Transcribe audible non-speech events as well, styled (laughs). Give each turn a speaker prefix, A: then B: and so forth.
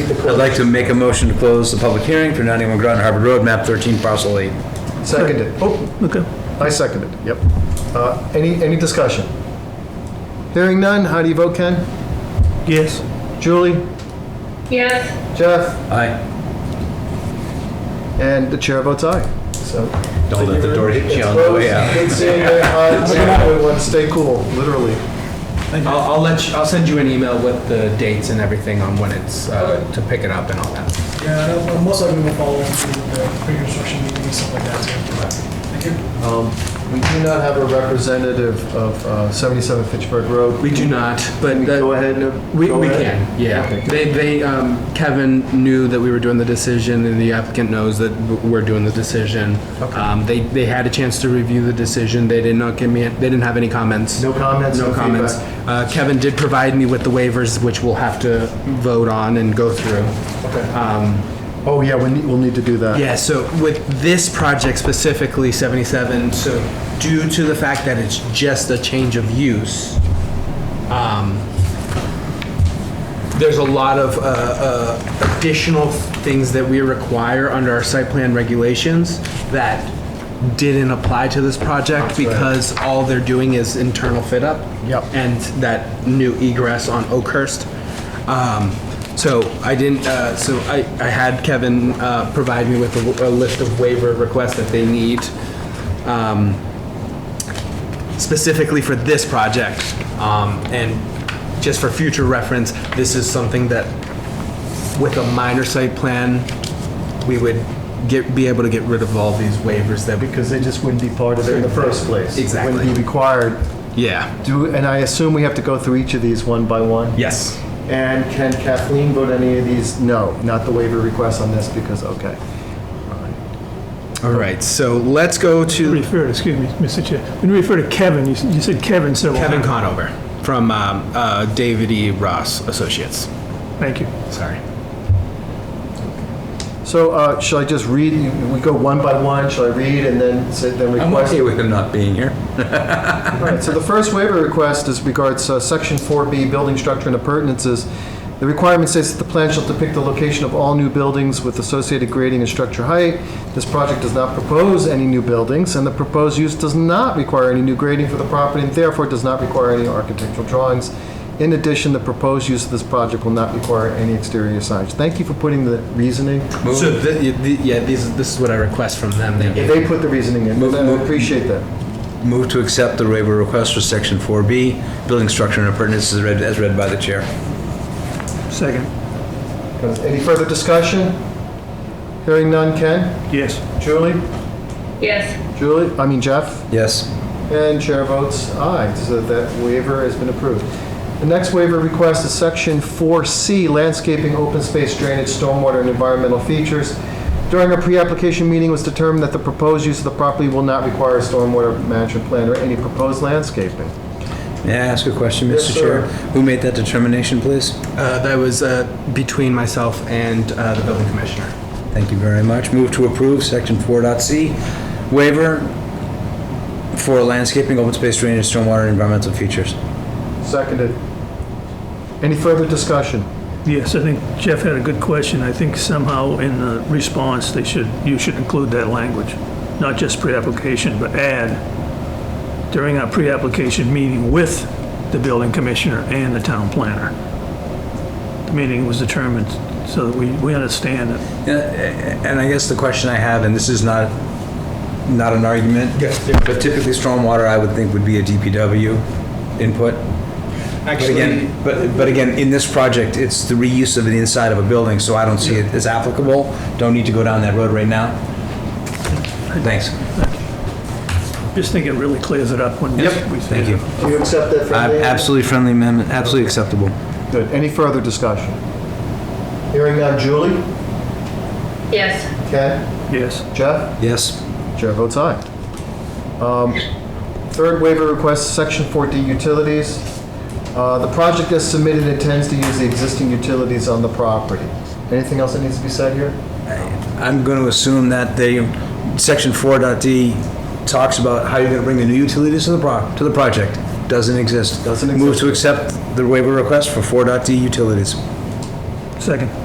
A: proceed to
B: I'd
A: close.
B: like to make a motion to close the public hearing for 91 Groton Harbor Road, map 13, parcel 8.
A: Seconded. Oh,
C: Okay.
A: I seconded, yep. Uh, Any, any discussion? Hearing none, how do you vote, Ken?
C: Yes.
A: Julie?
D: Yes,
A: Jeff?
B: Aye.
A: And the chair votes aye. So.
B: Don't let the door hit you on the
A: Close.
B: way out.
A: Good seeing you.
E: (laughs)
A: Uh, it's a good one. Stay cool, literally.
E: I'll, I'll let you, I'll send you an email with the dates and everything on when it's, uh, to pick it up and all that.
F: Yeah, and I'm most likely will follow through with the pre-construction meeting and stuff like that too. Thank you.
A: Um, We do not have a representative of uh, 77 Fitchburg Road.
E: We do not, but
A: Can we
E: that-
A: Go ahead and.
E: We,
A: go
E: we
A: ahead?
E: can, yeah.
A: Okay.
E: They, they, um, Kevin knew that we were doing the decision and the applicant knows that w- we're doing the decision. Um, they, they had a chance to review the decision. They did not give me, they didn't have any comments.
A: No comments, no
E: No comments.
A: feedback.
E: Uh, Kevin did provide me with the waivers, which we'll have to vote on and go through.
A: Oh, yeah, we need- we'll need to do that.
E: Yeah, so with this project specifically, 77, so due to the fact that it's just a change of use, um, there's a lot of uh, uh, additional things that we require under our site plan regulations that didn't apply to this project because all they're doing is internal fit up.
A: Yep.
E: And that new egress on Oakhurst. Um, So I didn't, uh, so I, I had Kevin uh, provide me with a w- a list of waiver requests that they need um, specifically for this project. Um, And just for future reference, this is something that with a minor site plan, we would get, be able to get rid of all these waivers that we could.
A: Because they just wouldn't be part of it in the first place.
E: Exactly.
A: Wouldn't be required.
E: Yeah.
A: Do, and I assume we have to go through each of these one by one?
E: Yes.
A: And can Kathleen vote any of these? No, not the waiver request on this because, okay.
E: All right, so let's go to
C: Refer, excuse me, Mr. Chair. When you refer to Kevin, you s- you said Kevin several
E: Kevin
C: times.
E: Conover from um, uh, David E. Ross Associates.
C: Thank you.
E: Sorry.
A: So uh, shall I just read, we go one by one, shall I read and then, say- then
B: I'm
A: request?
B: okay with him not being here.
A: All right, so the first waiver request is regards uh, Section 4B, building structure and appurtenances. The requirement states that the plan shall depict the location of all new buildings with associated grading and structure height. This project does not propose any new buildings, and the proposed use does not require any new grading for the property, and therefore does not require any architectural drawings. In addition, the proposed use of this project will not require any exterior signage. Thank you for putting the reasoning.
B: Move-
E: So, thi- thi- yeah, these, this is what I request from them. They gave-
A: They put the reasoning in,
B: Move-
A: I
B: move-
A: appreciate that.
B: Move to accept the waiver request for section 4B, building structure and appurtenances as read, as read by the chair.
C: Second.
A: Any further discussion? Hearing none, Ken?
C: Yes.
A: Julie?
D: yes,
A: Julie, I mean Jeff,
B: Yes.
A: and chair votes aye, so that waiver has been approved. The next waiver request is section 4C, landscaping, open space, drainage, stormwater, and environmental features. During a pre-application meeting, it was determined that the proposed use of the property will not require a stormwater management plan or any proposed landscaping.
B: May I ask a question,
A: Yes,
B: Mr. Chair?
A: sir.
B: Who made that determination, please?
E: Uh, that was uh, between myself and uh, the building commissioner.
B: Thank you very much. Move to approve section 4.c waiver for landscaping, open space, drainage, stormwater, and environmental features.
A: Seconded. Any further discussion?
C: Yes, I think Jeff had a good question. I think somehow in the response, they should, you should include that language, not just pre-application, but add during our pre-application meeting with the building commissioner and the town planner. The meeting was determined so that we, we understand it.
B: Yeah, a- And I guess the question I have, and this is not, not an argument. Yes. But typically stormwater, I would think would be a DPW input. But
E: Actually,
B: again, but, but again, in this project, it's the reuse of the inside of a building, so I don't see it as applicable. Don't need to go down that road right now. Thanks.
C: Just think it really clears it up when we say
B: Thank
C: it.
B: you.
A: Do you accept that
B: Uh,
A: friendly?
B: Absolutely friendly amendment, absolutely acceptable.
A: Good. Any further discussion? Hearing none, Julie?
D: yes.
A: Ken?
C: Yes.
A: Jeff?
B: Yes.
A: Chair votes aye. Um, Third waiver request, Section 4D utilities. Uh, The project as submitted intends to use the existing utilities on the property. Anything else that needs to be said here?
B: I'm going to assume that they, section 4.d talks about how you're going to bring the new utilities to the pro, to the project. Doesn't exist.
A: Doesn't
B: Move
A: exist.
B: to accept the waiver request for 4.d utilities.
C: Second.